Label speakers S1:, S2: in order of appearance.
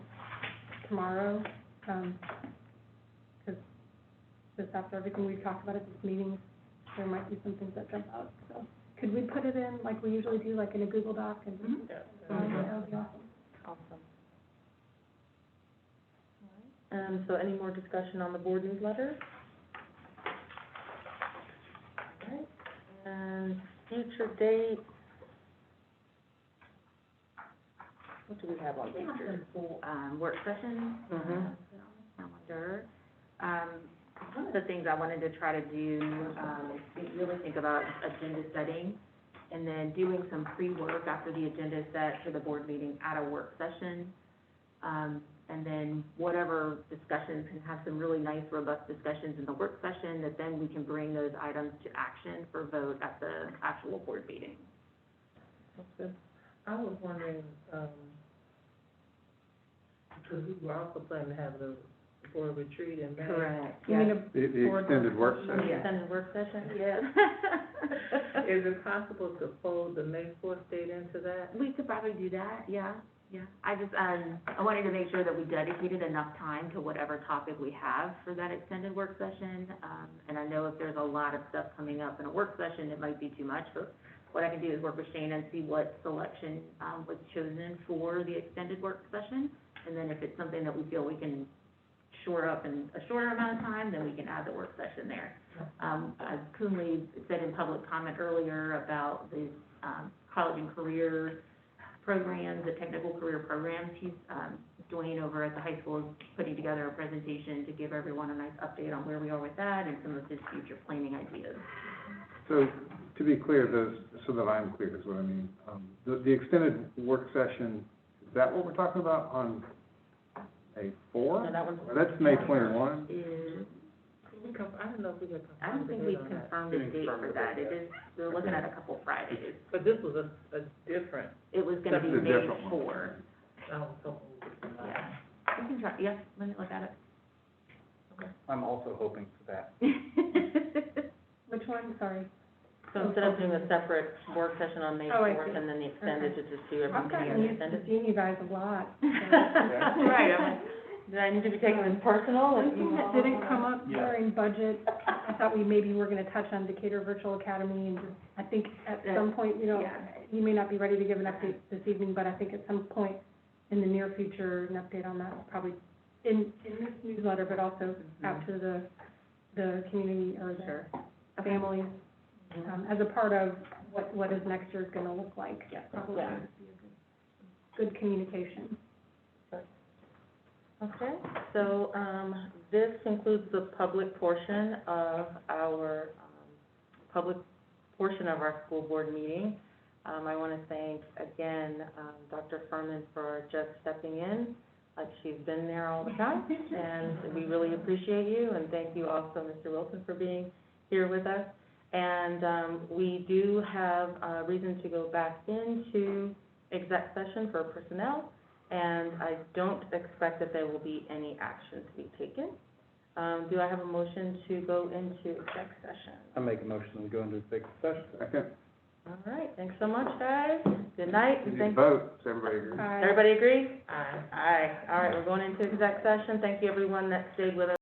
S1: tomorrow, um, because just after everything we've talked about at this meeting, there might be some things that jump out, so. Could we put it in, like we usually do, like in a Google Doc and? That would be awesome.
S2: Mm-hmm. Awesome. Um, so any more discussion on the board newsletter? Alright, and Um, future date. What do we have on
S3: We have
S2: future?
S3: some full, um, work sessions.
S2: Mhm.
S3: uh, Calendar. Um, one of the things I wanted to try to do, um, is think- really think about agenda setting and then doing some pre-work after the agenda is set for the board meeting at a work session. Um, and then whatever discussions, can have some really nice robust discussions in the work session that then we can bring those items to action for vote at the actual board meeting.
S2: Sounds good.
S4: I was wondering, um, because we were also planning to have the, for a retreat in May.
S1: You mean
S3: Yeah.
S1: a-
S5: The, the
S1: Board
S5: extended work
S1: work
S5: session.
S2: Extended work session?
S3: Yeah.
S4: Is it possible to fold the May fourth date into that?
S3: We could probably do that, yeah, yeah. I just, um, I wanted to make sure that we dedicated enough time to whatever topic we have for that extended work session. Um, and I know if there's a lot of stuff coming up in a work session, it might be too much, but what I can do is work with Shana and see what selection, um, was chosen for the extended work session. And then if it's something that we feel we can shore up in a shorter amount of time, then we can add the work session there. Um, as Coonley said in public comment earlier about the, um, college and career programs, the technical career programs, he's, um, Dwayne over at the high school is putting together a presentation to give everyone a nice update on where we are with that and some of his future planning ideas.
S5: So, to be clear, those, so that I'm clear is what I mean, um, the, the extended work session, is that what we're talking about on May four?
S2: No, that one's.
S5: That's May twenty-one?
S3: Is,
S4: We con- I don't know if we had.
S3: I don't think we've
S4: confirmed the date on that.
S3: confirmed a date for that, it is, we're looking at a couple Fridays.
S4: But this was a, a different,
S3: It was gonna be
S5: That's a
S3: May
S5: different one.
S3: four,
S4: um, so.
S3: yeah. We can try, yeah, let me look at
S5: I'm also hoping for that.
S3: it.
S1: Which one, sorry?
S2: So instead of doing a separate work session on May
S1: Oh, I
S2: fourth
S1: see.
S2: and then the extended, to just do
S1: I've
S2: everything
S1: gotten
S2: together
S1: used to
S2: extended?
S1: seeing you guys a lot. so-
S3: Right, I'm like,
S2: Did I need to be taking this personal? if
S1: Something
S2: you
S1: that Oh,
S2: all-
S1: didn't come up
S5: Yeah.
S1: during budget, I thought we maybe were gonna touch on Decatur Virtual Academy, and just- I think at
S3: That-
S1: some point, you know,
S3: yeah.
S1: you may not be ready to give an update this evening, but I think at some point in the near future, an update on that, probably in, in this newsletter, but also out to the, the community or
S2: Sure.
S1: the families, um, as a part of what, what is next year's gonna look like.
S2: Yeah.
S1: Probably
S2: Yeah.
S1: would be a good- Good communication.
S2: Okay, so, um, this concludes the public portion of our, um, public portion of our school board meeting. Um, I want to thank again, um, Dr. Furman for just stepping in, like she's been there all the time. And we really appreciate you, and thank you also, Mr. Wilson, for being here with us. And, um, we do have, uh, reason to go back into exec session for personnel and I don't expect that there will be any action to be taken. Um, do I have a motion to go into exec session?
S5: I make a motion to go into executive session. Second.
S2: All right, thanks so much, guys. Good night,
S5: You
S2: and
S5: need to
S2: thank,
S5: vote, does everybody agree?
S1: Bye.
S2: everybody agree?
S4: Aye.
S2: Aye, all right, we're going into exec session. Thank you, everyone that stayed with us.